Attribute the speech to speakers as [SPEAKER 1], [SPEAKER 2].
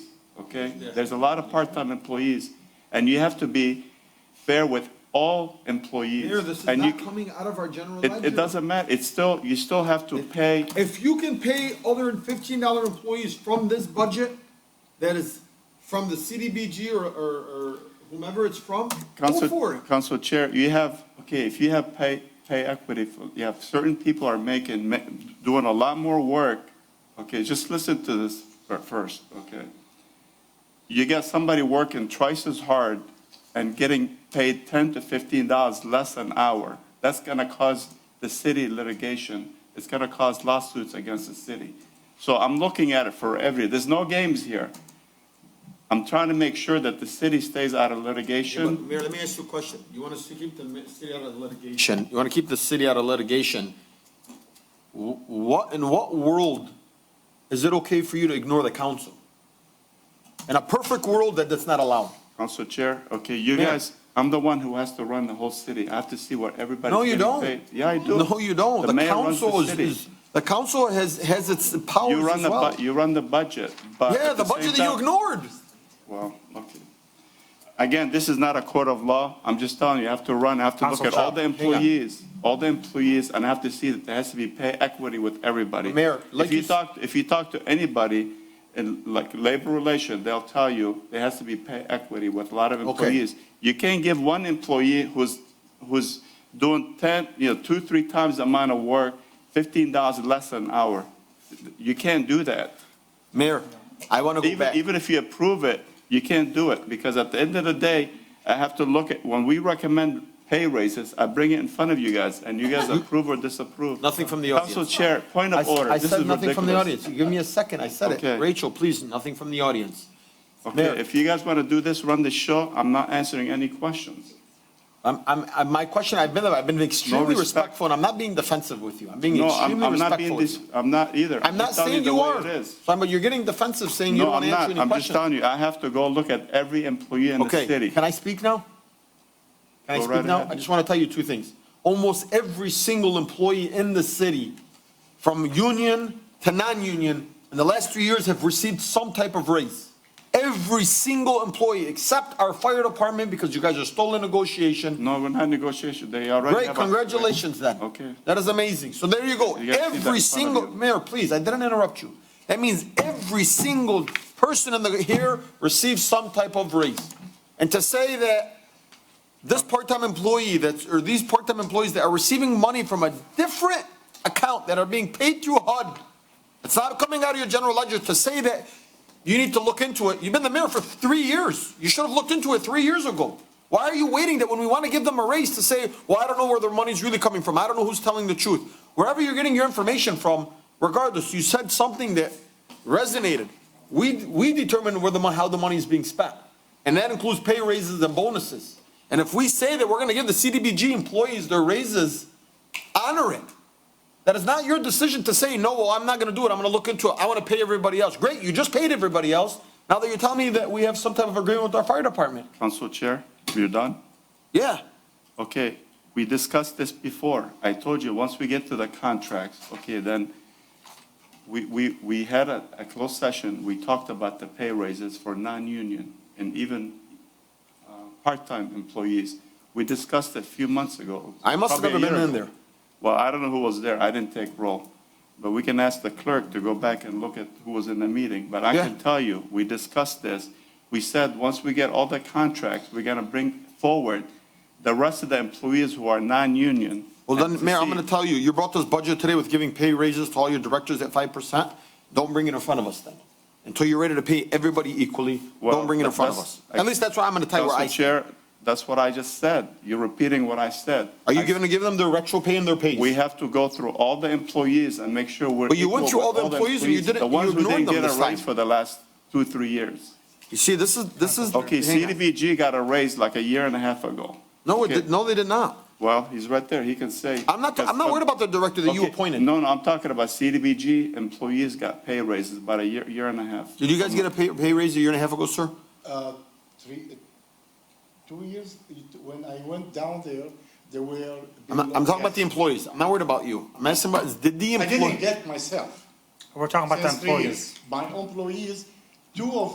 [SPEAKER 1] okay? There's a lot of part-time employees, and you have to be fair with all employees.
[SPEAKER 2] Mayor, this is
[SPEAKER 1] And you
[SPEAKER 2] not coming out of our general
[SPEAKER 1] It,
[SPEAKER 2] ledger.
[SPEAKER 1] it doesn't matter, it's still, you still have to pay,
[SPEAKER 2] If you can pay other than fifteen dollar employees from this budget, that is from the CDBG or, or, or whomever it's from, go for
[SPEAKER 1] Council,
[SPEAKER 2] it.
[SPEAKER 1] Council Chair, you have, okay, if you have pay, pay equity, for- you have certain people are making, ma- doing a lot more work, okay, just listen to this fir- first, okay? You got somebody working twice as hard and getting paid ten to fifteen dollars less an hour. That's gonna cause the city litigation, it's gonna cause lawsuits against the city. So I'm looking at it for every, there's no games here. I'm trying to make sure that the city stays out of
[SPEAKER 2] Yeah, but
[SPEAKER 1] litigation.
[SPEAKER 2] Mayor, let me ask you a question. You want us to keep the mi- city out of litigation?
[SPEAKER 3] litigation, you want to keep the city out of litigation, wh- what, in what world is it okay for you to ignore the council? In a perfect world, that that's not allowed.
[SPEAKER 1] Council Chair, okay, you
[SPEAKER 3] Mayor.
[SPEAKER 1] guys, I'm the one who has to run the whole city. I have to see what everybody's
[SPEAKER 3] No, you
[SPEAKER 1] getting
[SPEAKER 3] don't.
[SPEAKER 1] paid. Yeah, I do.
[SPEAKER 3] No, you don't. The
[SPEAKER 1] mayor runs
[SPEAKER 3] council is,
[SPEAKER 1] city.
[SPEAKER 3] is, the council has, has its powers
[SPEAKER 1] You run
[SPEAKER 3] as
[SPEAKER 1] the,
[SPEAKER 3] well.
[SPEAKER 1] bu- you run the budget, but.
[SPEAKER 3] Yeah,
[SPEAKER 1] at
[SPEAKER 3] the
[SPEAKER 1] same
[SPEAKER 3] budget that you
[SPEAKER 1] time-
[SPEAKER 3] ignored.
[SPEAKER 1] Well, okay. Again, this is not a court of law. I'm just telling you, I have to run, I have to look
[SPEAKER 3] Council
[SPEAKER 1] at all
[SPEAKER 3] Chop,
[SPEAKER 1] the
[SPEAKER 3] hang on.
[SPEAKER 1] employees, all the employees, and I have to see that there has to be pay equity with everybody.
[SPEAKER 3] Mayor, like
[SPEAKER 1] If
[SPEAKER 3] you
[SPEAKER 1] you
[SPEAKER 3] s-
[SPEAKER 1] talk, if you talk to anybody in like labor relation, they'll tell you there has to be pay equity with a lot of employees. You can't give one employee who's, who's doing 10, you know, two, three times the amount of work, $15 less an hour. You can't do that.
[SPEAKER 3] Mayor, I want to go
[SPEAKER 1] Even,
[SPEAKER 3] back.
[SPEAKER 1] even if you approve it, you can't do it, because at the end of the day, I have to look at, when we recommend pay raises, I bring it in front of you guys, and you guys approve or disapprove.
[SPEAKER 3] Nothing from the
[SPEAKER 1] Council
[SPEAKER 3] audience.
[SPEAKER 1] Chair, point
[SPEAKER 3] I
[SPEAKER 1] of
[SPEAKER 3] s-
[SPEAKER 1] order,
[SPEAKER 3] I
[SPEAKER 1] this is
[SPEAKER 3] said nothing from the
[SPEAKER 1] ridiculous.
[SPEAKER 3] audience. You Give me a second, I said
[SPEAKER 1] Okay.
[SPEAKER 3] it. Rachel, please, nothing from the audience. Mayor.
[SPEAKER 1] Okay, if you guys want to do this, run the show, I'm not answering any questions.
[SPEAKER 3] I'm, I'm, I- my question, I've been, I've been extremely
[SPEAKER 1] respect.
[SPEAKER 3] respectful, and I'm not being defensive with you. I'm being
[SPEAKER 1] No, I'm,
[SPEAKER 3] extremely
[SPEAKER 1] I'm not being,
[SPEAKER 3] respectful with
[SPEAKER 1] dis-
[SPEAKER 3] you.
[SPEAKER 1] I'm not either.
[SPEAKER 3] I'm not
[SPEAKER 1] just telling
[SPEAKER 3] saying
[SPEAKER 1] the
[SPEAKER 3] you
[SPEAKER 1] way
[SPEAKER 3] are.
[SPEAKER 1] It is.
[SPEAKER 3] So, But you're getting defensive, saying you
[SPEAKER 1] No,
[SPEAKER 3] don't want
[SPEAKER 1] I'm
[SPEAKER 3] to answer
[SPEAKER 1] not,
[SPEAKER 3] any
[SPEAKER 1] I'm just
[SPEAKER 3] questions.
[SPEAKER 1] telling you, I have to go look at every employee in the
[SPEAKER 3] Okay,
[SPEAKER 1] city.
[SPEAKER 3] can I speak now? Can I
[SPEAKER 1] Go
[SPEAKER 3] speak
[SPEAKER 1] right
[SPEAKER 3] now?
[SPEAKER 1] ahead.
[SPEAKER 3] I just want to tell you two things. Almost every single employee in the city, from union to non-union, in the last three years have received some type of raise. Every single employee, except our fire department, because you guys are still in negotiation.
[SPEAKER 1] No, we're not in negotiation, they already
[SPEAKER 3] Great,
[SPEAKER 1] have a-
[SPEAKER 3] congratulations then.
[SPEAKER 1] Okay.
[SPEAKER 3] That is amazing. So there you go.
[SPEAKER 1] You gotta see that
[SPEAKER 3] Every
[SPEAKER 1] in front of
[SPEAKER 3] single,
[SPEAKER 1] you.
[SPEAKER 3] Mayor, please, I didn't interrupt you. That means every single person in the, here receives some type of raise. And to say that this part-time employee that's, or these part-time employees that are receiving money from a different account that are being paid through HUD, it's not coming out of your general ledger to say that you need to look into it. You've been the mayor for three years. You should have looked into it three years ago. Why are you waiting that when we want to give them a raise to say, well, I don't know where their money's really coming from. I don't know who's telling the truth. Wherever you're getting your information from, regardless, you said something that resonated. We, we determine where the, mon- how the money is being spent. And that includes pay raises and bonuses. And if we say that we're going to give the CDBG employees their raises, honor it. That is not your decision to say, no, well, I'm not gonna do it, I'm gonna look into it, I wanna pay everybody else. Great, you just paid everybody else, now that you're telling me that we have some type of agreement with our fire department.
[SPEAKER 1] Council Chair, you're done?
[SPEAKER 3] Yeah,
[SPEAKER 1] Okay, we discussed this before. I told you, once we get to the contracts, okay, then we, we, we had a, a closed session. We talked about the pay raises for non-union and even, uh, part-time employees. We discussed it a few months ago.
[SPEAKER 3] I must have
[SPEAKER 1] probably a
[SPEAKER 3] never
[SPEAKER 1] year
[SPEAKER 3] been in
[SPEAKER 1] ago.
[SPEAKER 3] there.
[SPEAKER 1] Well, I don't know who was there. I didn't take roll. But we can ask the clerk to go back and look at who was in the meeting. But I
[SPEAKER 3] Yeah.
[SPEAKER 1] can tell you, we discussed this. We said, once we get all the contracts, we're gonna bring forward the rest of the employees who are non-union.
[SPEAKER 3] Well,
[SPEAKER 1] and
[SPEAKER 3] then,
[SPEAKER 1] to
[SPEAKER 3] Mayor, I'm
[SPEAKER 1] see-
[SPEAKER 3] gonna tell you, you brought this budget today with giving pay raises to all your directors at five percent, don't bring it in front of us then. Until you're ready to pay everybody equally,
[SPEAKER 1] Well,
[SPEAKER 3] don't bring it in front of
[SPEAKER 1] that's-
[SPEAKER 3] us. At least that's why I'm gonna tell you where I,
[SPEAKER 1] Council Chair, that's what I just said. You're repeating what I said.
[SPEAKER 3] are you
[SPEAKER 1] I-
[SPEAKER 3] gonna give them their retro pay and their pays?
[SPEAKER 1] We have to go through all the employees and make sure we're.
[SPEAKER 3] But you went
[SPEAKER 1] equal
[SPEAKER 3] through
[SPEAKER 1] with
[SPEAKER 3] all the employees and you didn't-
[SPEAKER 1] The
[SPEAKER 3] you
[SPEAKER 1] ones who
[SPEAKER 3] ignored
[SPEAKER 1] didn't
[SPEAKER 3] them
[SPEAKER 1] get a
[SPEAKER 3] this time.
[SPEAKER 1] raise for the last two, three years.
[SPEAKER 3] You see, this is, this is.
[SPEAKER 1] Okay,
[SPEAKER 3] hang on.
[SPEAKER 1] CDBG got a raise like a year and a half ago.
[SPEAKER 3] No, it
[SPEAKER 1] Okay.
[SPEAKER 3] did, no, they did not.
[SPEAKER 1] Well, he's right there, he can say. uh,
[SPEAKER 3] I'm not, I'm not worried about the director that you
[SPEAKER 1] Okay,
[SPEAKER 3] appointed.
[SPEAKER 1] No, no, I'm talking about CDBG employees got pay raises about a year, year and a half.
[SPEAKER 3] Did you guys get a pay, pay raise a year and a half ago, sir?
[SPEAKER 4] uh, three, two years, it- when I went down there, there were.
[SPEAKER 3] I'm, not- I'm talking about the employees. I'm not worried about you. I'm asking about, did the
[SPEAKER 4] I didn't
[SPEAKER 3] employee?
[SPEAKER 4] get myself.
[SPEAKER 5] We're talking about the
[SPEAKER 4] since three
[SPEAKER 5] employees.
[SPEAKER 4] years. My employees, two of